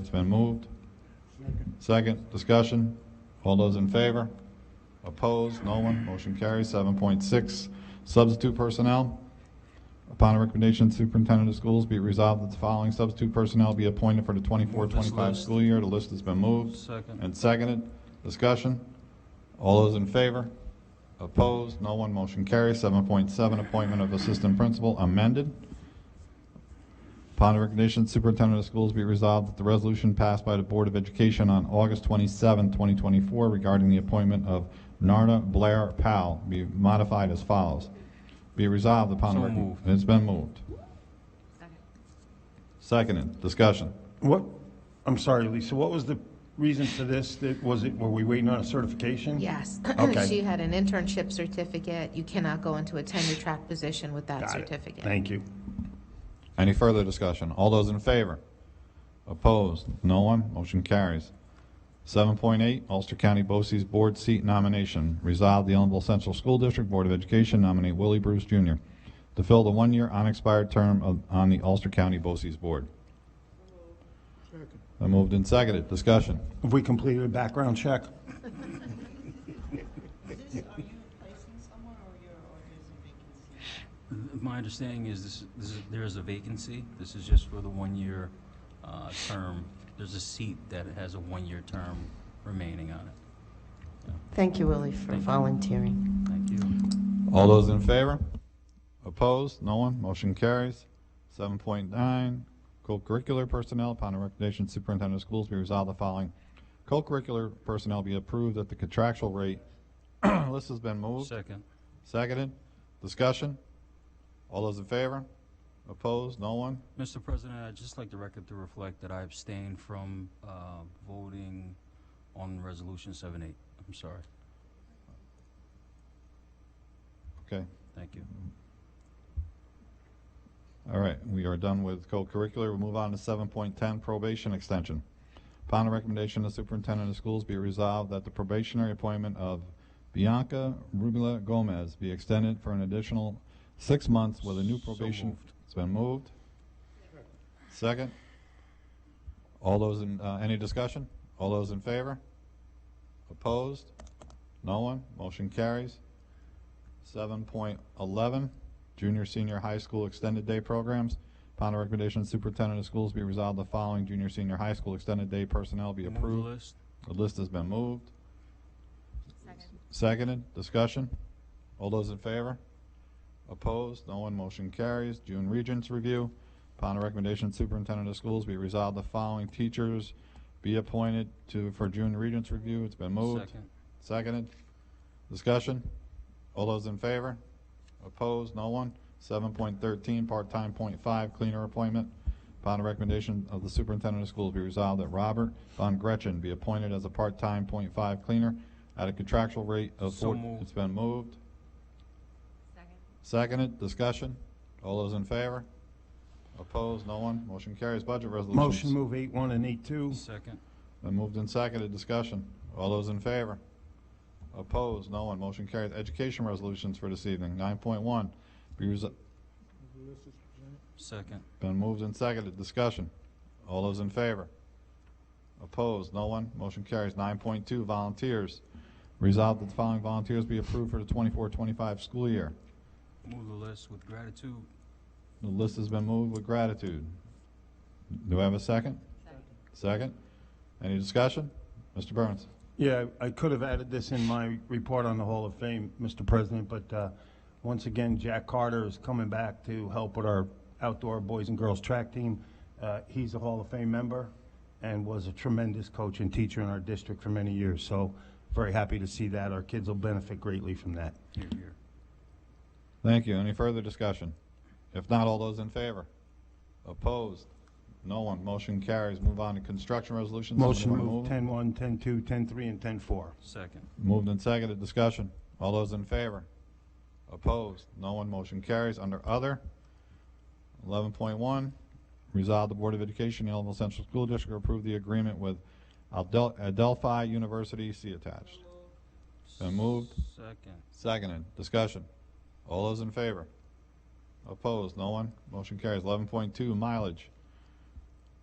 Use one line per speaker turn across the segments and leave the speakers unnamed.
It's been moved. Second, discussion. All those in favor? Opposed? No one? Motion carries. Seven point six, substitute personnel. Upon the recommendation of superintendent of schools, be it resolved that the following substitute personnel be appointed for the 24-25
Move this list.
school year. The list has been moved.
Second.
And seconded, discussion. All those in favor? Opposed? No one, motion carries. Seven point seven, appointment of assistant principal amended. Upon the recommendation, of superintendent of schools be resolved that the resolution passed by the Board of Education on August 27, 2024 regarding the appointment of Narda Blair Powell be modified as follows. Be resolved upon. the
So
recom-
moved.
It's been moved.
Second.
Seconded, discussion.
What, I'm sorry, Lisa, what was the reason for this? That- Was it, were we waiting on a certification?
Yes.
Okay.
She had an internship certificate. You cannot go into a tenure-track position with that
Got it.
certificate.
Thank you.
Any further discussion? All those in favor? Opposed? No one? Motion carries. 7.8, Ulster County BOCES Board Seat Nomination. Resolved, the Ellenville Central School District Board of Education nominate Willie Bruce Jr. to fill the one-year unexpired term of- on the Ulster County BOCES Board. Been moved and seconded. Discussion.
Have we completed a background check?
Is this, are you replacing someone or you're, or there's a vacancy?
My understanding is this, this is, there is a vacancy. This is just for the one-year, uh, term. There's a seat that has a one-year term remaining on it.
Thank you, Willie, for
Thank you.
volunteering.
Thank you.
All those in favor? Opposed? No one? Motion carries. Seven point nine, co-curricular personnel, upon the recommendation of superintendent of schools, be resolved the following. Co-curricular personnel be approved at the contractual rate. List has been moved,
Second.
seconded, discussion. All those in favor? Opposed? No one?
Mr. President, I'd just like the record to reflect that I abstained from, uh, voting on Resolution 7-8. I'm sorry.
Okay,
Thank you.
all right, we are done with co-curricular. We'll move on to seven point ten, probation extension. Upon the recommendation of the superintendent of schools, be resolved that the probationary appointment of Bianca Rubila Gomez be extended for an additional six months with a new
So
probation.
moved.
It's been moved. Second. All those in, uh, any discussion? All those in favor? Opposed? No one? Motion carries. Seven point eleven, junior, senior high school extended day programs. Upon the recommendation of superintendent of schools, be resolved the following junior, senior high school extended day personnel be
Move the
approved.
list.
The list has been moved. Seconded, discussion? All those in favor? Opposed? No one, motion carries. June Regents Review. Upon the recommendation of superintendent of schools, be resolved the following teachers be appointed to, for June Regents Review. It's been moved.
Second.
Seconded. Discussion? All those in favor? Opposed? No one? Seven point thirteen, part-time point five, cleaner appointment. Upon the recommendation of the superintendent of schools, be resolved that Robert Von Gretchen be appointed as a part-time point five cleaner at a contractual rate of
So
four.
moved.
It's been moved. Seconded. Discussion? All those in favor? Opposed? No one? Motion carries. Budget resolutions.
Motion move eight one and eight two.
Second.
Been moved and seconded, discussion. All those in favor? Opposed? No one, motion carries. Education resolutions for this evening, nine point one. Be resol-
Second.
been moved and seconded, discussion. All those in favor? Opposed? No one, motion carries. Nine point two, volunteers. Resolved that the following volunteers be approved for the 24-25 school year.
Move the list with gratitude.
The list has been moved with gratitude. Do I have a second? Second? Any discussion? Mr. Burns?
Yeah, I could have added this in my report on the Hall of Fame, Mr. President, but uh, once again, Jack Carter is coming back to help with our outdoor boys and girls track team. Uh, He's a Hall of Fame member and was a tremendous coach and teacher in our district for many years, so very happy to see that. Our kids will benefit greatly from that.
Here, here.
Thank you. Any further discussion? If not, all those in favor? Opposed? No one. Motion carries. Move on to construction resolutions.
Motion
Somebody
move
it?
10-1, 10-2, 10-3, and 10-4.
Second.
Moved and seconded. Discussion. All those in favor? Opposed? No one. Motion carries. Under other, eleven point one, resolve the Board of Education, Ellenville Central School District approve the agreement with Adel- Adelphi University. See attached. Been moved.
Second.
Seconded. Discussion. All those in favor? Opposed? No one? Motion carries. Eleven point two, mileage.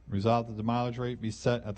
Resolved that the mileage rate be set at the